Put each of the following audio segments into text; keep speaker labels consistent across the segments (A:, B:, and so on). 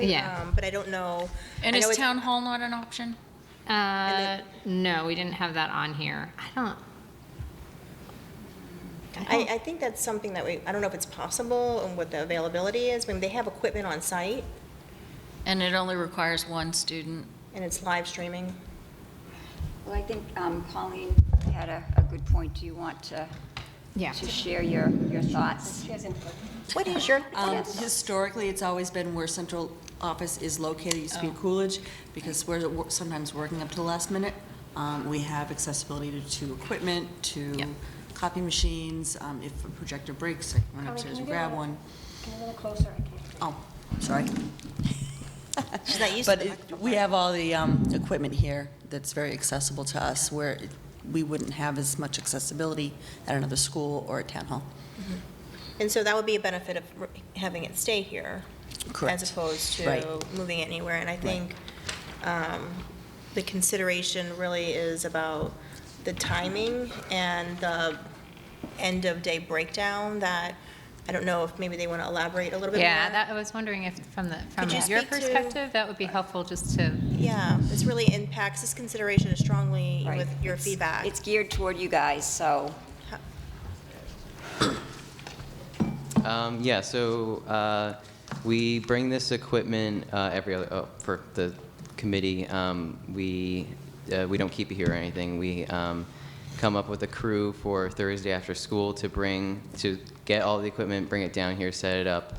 A: Yeah.
B: Um, But I don't know.
C: And
B: I know
C: is
B: it's-
C: town hall not an option?
A: Uh,
B: then-
A: no, we didn't have that on here. I don't.
B: I, I think that's something that we, I don't know if it's possible and what the availability is. I mean, they have equipment on site
C: And it only requires one student.
B: and it's live streaming.
D: Well, I think um, Colleen had a, a good point. Do you want to,
A: Yeah.
D: to share your, your thoughts?
B: What is your,
E: Um,
D: Yes.
E: Historically, it's always been where central office is located, It used to
F: Oh.
E: be Coolidge, because we're wo- sometimes working up to the last minute. Um, We have accessibility to- to equipment, to
C: Yep.
E: copy machines. Um, If a projector breaks, I can run
F: Colleen, can you
E: upstairs and
F: get
E: grab
F: a- Can
E: one.
F: you get a little closer? I can't.
E: Oh, sorry.
B: she's not used to
E: But
B: the
E: it- we have all the um, equipment here that's very accessible to us, where it- we wouldn't have as much accessibility at another school or a town hall.
B: And so that would be a benefit of r- having it stay here. As opposed
E: Right.
B: to moving it anywhere. And I think um, the consideration really is about the timing and the end-of-day breakdown that, I don't know if maybe they want to elaborate a little bit more.
A: Yeah, that, I was wondering if from the, from
B: Could you speak
A: your
B: to-
A: perspective, that would be helpful just to,
B: Yeah, this really impacts, this consideration is strongly
D: Right.
B: with your
D: It's-
B: feedback.
D: It's geared toward you guys, so.
G: Um, yeah, so uh, we bring this equipment uh, every other, oh, for the committee. Um, we, uh, we don't keep it here or anything. We um, come up with a crew for Thursday after school to bring, to get all the equipment, bring it down here, set it up.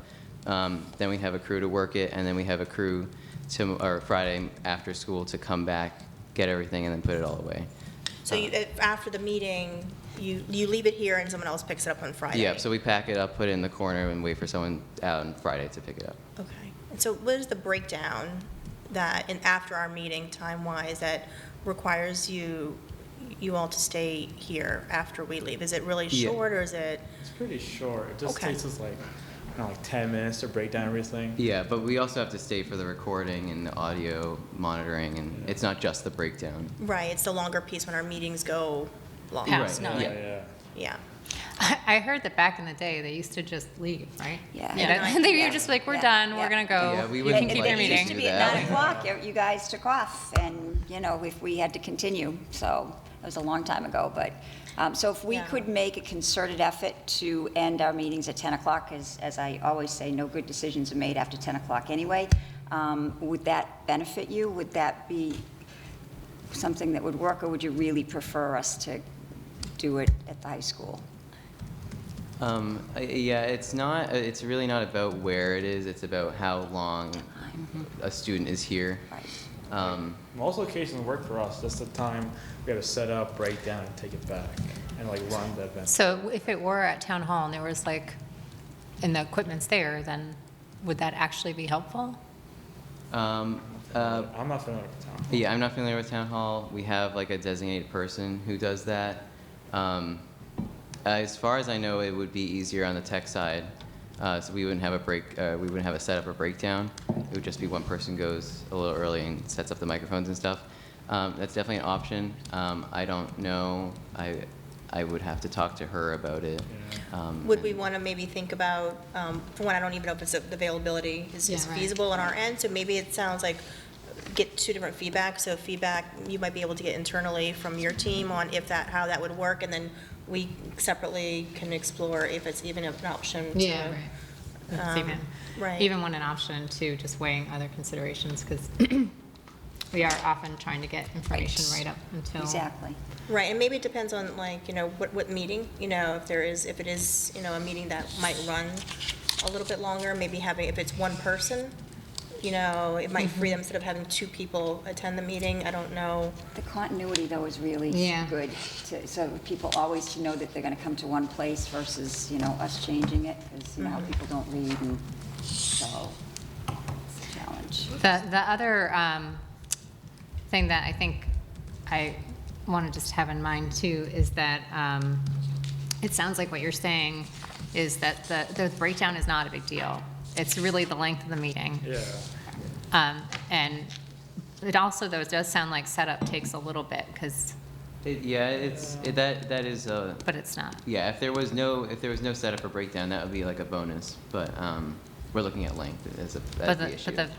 G: Um, then we have a crew to work it, and then we have a crew to, or Friday after school to come back, get everything, and then put it all away.
B: So you, if after the meeting, you, you leave it here and someone else picks it up on Friday?
G: Yeah, so we pack it up, put it in the corner, and wait for someone out on Friday to pick it up.
B: Okay. And so what is the breakdown that, in after our meeting, time-wise, that requires you, you all to stay here after we leave? Is it really
G: Yeah.
B: short, or is it?
H: It's pretty short. It just
B: Okay.
H: takes us like, I don't know, like 10 minutes to break down everything.
G: Yeah, but we also have to stay for the recording and the audio monitoring, and it's not just the breakdown.
B: Right, it's the longer piece when our meetings go long.
C: Yeah, it's
G: Right,
C: not.
H: Yeah, yeah.
B: Yeah.
A: I heard that back in the day, they used to just leave, right?
D: Yeah.
A: You know, They were just like, we're
D: Yeah.
A: done, we're
D: Yeah.
A: gonna go,
G: Yeah, we
A: you
G: wouldn't
A: can keep
G: like
A: your
D: It used to
A: meeting.
G: do
D: be at
G: that.
D: nine o'clock, you- you guys took off, and, you know, if we had to continue, so it was a long time ago, but, um, so if we
B: Yeah.
D: could make a concerted effort to end our meetings at ten o'clock, as, as I always say, no good decisions are made after ten o'clock anyway, um, would that benefit you? Would that be something that would work, or would you really prefer us to do it at the high school?
G: Um, I- yeah, it's not. It's really not about where it is. It's about how long
A: Mm-hmm.
G: a student is here.
D: Right.
G: Um,
H: Most locations work for us. That's the time we have to set up, break down, and take it back, and like run the event.
A: So if it were at town hall and there was like, and the equipment's there, then would that actually be helpful?
G: um, uh,
H: I'm not familiar with the town.
G: yeah, I'm not familiar with town hall. We have like a designated person who does that. Um, as far as I know, it would be easier on the tech side. Uh, so we wouldn't have a break. Uh, we wouldn't have a setup or breakdown. It would just be one person goes a little early and sets up the microphones and stuff. Um, that's definitely an option. Um, I don't know. I I would have to talk to her about it. Um,
B: Would we want to maybe think about, um, for one, I don't even know if it's availability is is
A: Yeah, right.
B: feasible on our end, so maybe it sounds like get two different feedback, so feedback you might be able to get internally from your team on if that, how that would work, and then we separately can explore if it's even an option to. um,
A: Yeah, right. That's even,
B: right.
A: even one an option to just weighing other considerations, because we are often trying to get information right up until.
D: Exactly.
B: Right, and maybe it depends on like, you know, what, what meeting, you know, if there is, if it is, you know, a meeting that might run a little bit longer, maybe having, if it's one person, you know, it might free them instead of having two people attend the meeting, I don't know.
D: The continuity, though, is really
A: Yeah.
D: good, to- so people always to know that they're going to come to one place versus, you know, us changing it, because now people don't read, and so it's a challenge.
A: The, the other um, thing that I think I want to just have in mind too is that um, it sounds like what you're saying is that the, the breakdown is not a big deal. It's really the length of the meeting.
H: Yeah.
A: Um, And it also, though, it does sound like setup takes a little bit, because,
G: it, yeah, it's it, that that is uh,
A: but it's not.
G: Yeah, if there was no if there was no setup or breakdown, that would be like a bonus. But um, we're looking at length as a as
A: But
G: the,
A: the,
G: issue.
A: but the